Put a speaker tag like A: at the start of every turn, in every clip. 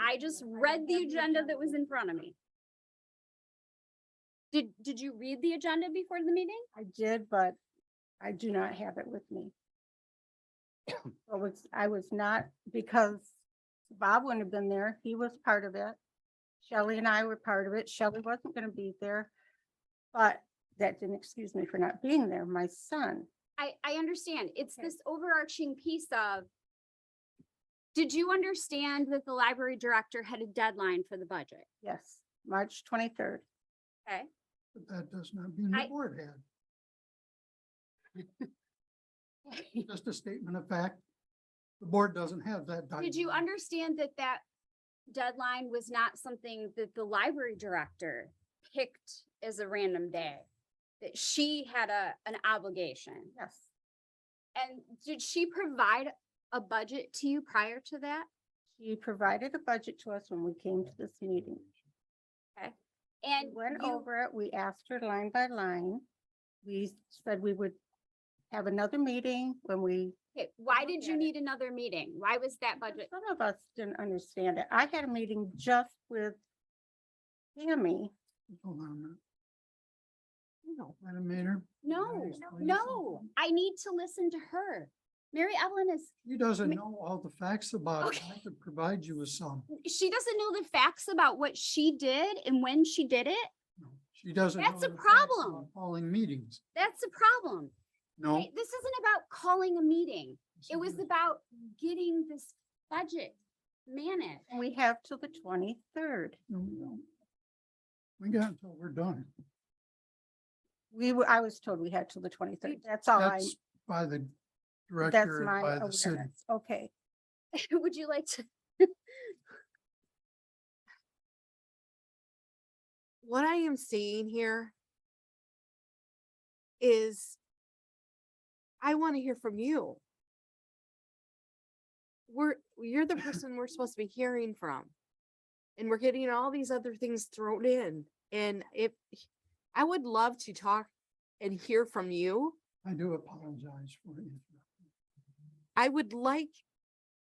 A: I just read the agenda that was in front of me. Did, did you read the agenda before the meeting?
B: I did, but I do not have it with me. I was, I was not, because Bob wouldn't have been there. He was part of it. Shelley and I were part of it. Shelley wasn't gonna be there. But that didn't excuse me for not being there. My son,
A: I, I understand. It's
B: Okay.
A: this overarching piece of. Did you understand that the library director had a deadline for the budget?
B: yes, March twenty-third.
A: Okay.
C: But that does not mean the
A: I-
C: board had. Just a statement of fact. The board doesn't have that.
A: Did you
C: document.
A: understand that that deadline was not something that the library director picked as a random day? That she had a, an obligation?
B: Yes,
A: And did she provide a budget to you prior to that?
B: she provided a budget to us when we came to this meeting. We
A: And
B: went
A: you,
B: over it, we asked her line by line. We said we would have another meeting when we,
A: okay, why did
B: looked
A: you
B: at it.
A: need another meeting? Why was that budget?
B: some of us didn't understand it. I had a meeting just with Tammy.
C: Hold on a minute. No. Madam Mayor. may I
A: No,
C: explain
A: no,
C: something?
A: I need to listen to her. Mary Evelyn is,
C: He doesn't
A: Ma-
C: know all the facts about it. I
A: Okay.
C: could provide you with some.
A: she doesn't know the facts about what she did and when she did it.
C: No, She doesn't.
A: That's
C: know
A: a
C: the facts about
A: problem.
C: Calling meetings.
A: That's the problem.
C: No.
A: right? This isn't about calling a meeting.
C: yes,
A: It was
C: is.
A: about getting this budget managed.
B: and We have till the twenty-third.
C: No, we don't. We got until we're done.
B: We were, I was told we had till the twenty-third. That's all Oh, I,
C: That's by the
B: that's
C: director, and
B: my
C: by the city.
B: awareness. Okay,
A: Would you like to?
D: what I am seeing here is I want to hear from you. We're, you're the person we're supposed to be hearing from. And we're getting all these other things thrown in. And if, I would love to talk and hear from you.
C: I do apologize for interrupting.
D: I would like,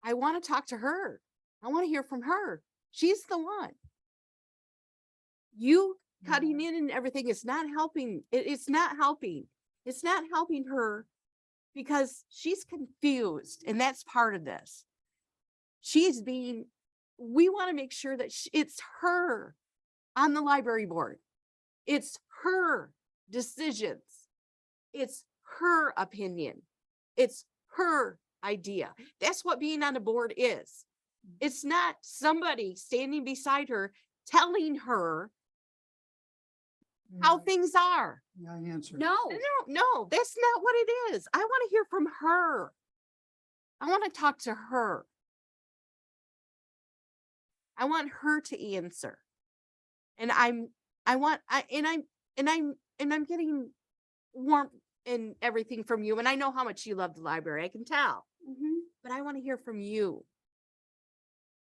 D: I want to talk to her. I want to hear from her. She's the one. You cutting in and everything is not helping. It, it's not helping. It's not helping her because she's confused and that's part of this. She's being, we want to make sure that sh- it's her on the library board. It's her decisions. It's her opinion. It's her idea. That's what being on a board is. It's not somebody standing beside her telling her how
C: May I-
D: things are.
C: may I answer.
A: No,
D: No, no, that's not what it is. I want to hear from her. I want to talk to her. I want her to answer. And I'm, I want, I, and I'm, and I'm, and I'm getting warmth and everything from you. And I know how much you love the library. I can tell.
B: Mm-hmm.
A: Mhm.
D: But I want to hear from you.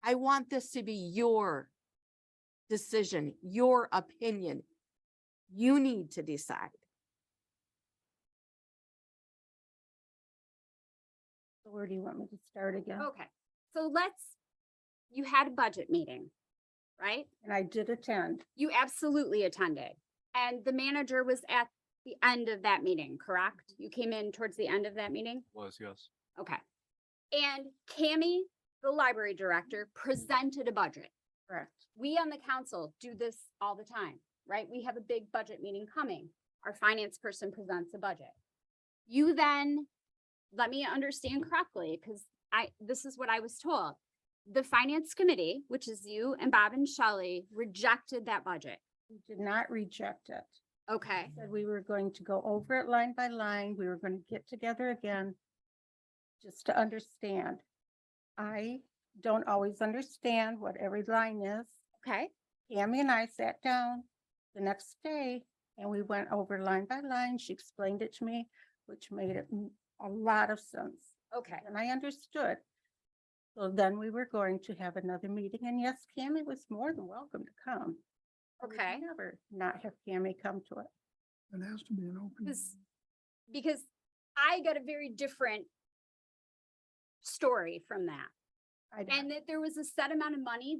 D: I want this to be your decision, your opinion. You need to decide.
B: So where do you want me to start again?
A: okay. So let's, you had a budget meeting, right?
B: And I did attend.
A: You absolutely attended. And the manager was at the end of that meeting, correct? You came in towards the end of that meeting?
E: Mm-hmm. Was, yes.
A: Okay. And Cammy, the library director,
E: Mm-hmm.
A: presented a budget.
B: Correct.
A: We on the council do this all the time, right? We have a big budget meeting coming. Our finance person presents a budget. You then, let me understand correctly, because I, this is what I was told. The finance committee, which is you and Bob and Shelley, rejected that budget.
B: We did not reject it.
A: Okay,
B: Said we were going to go over it line by line. We were going to get together again. Just to understand. I don't always understand what every line is.
A: okay.
B: Tammy and I sat down the next day and we went over line by line. She explained it to me, which made it m- a lot of sense.
A: Okay,
B: And I understood. So then we were going to have another meeting and yes, Tammy was more than welcome to come. I would
A: Okay.
B: Never not have Tammy come to it.
C: It has to be an open.
A: Because-
C: meeting.
A: because I got a very different story from that.
B: I don't-
A: And that there was a set amount of money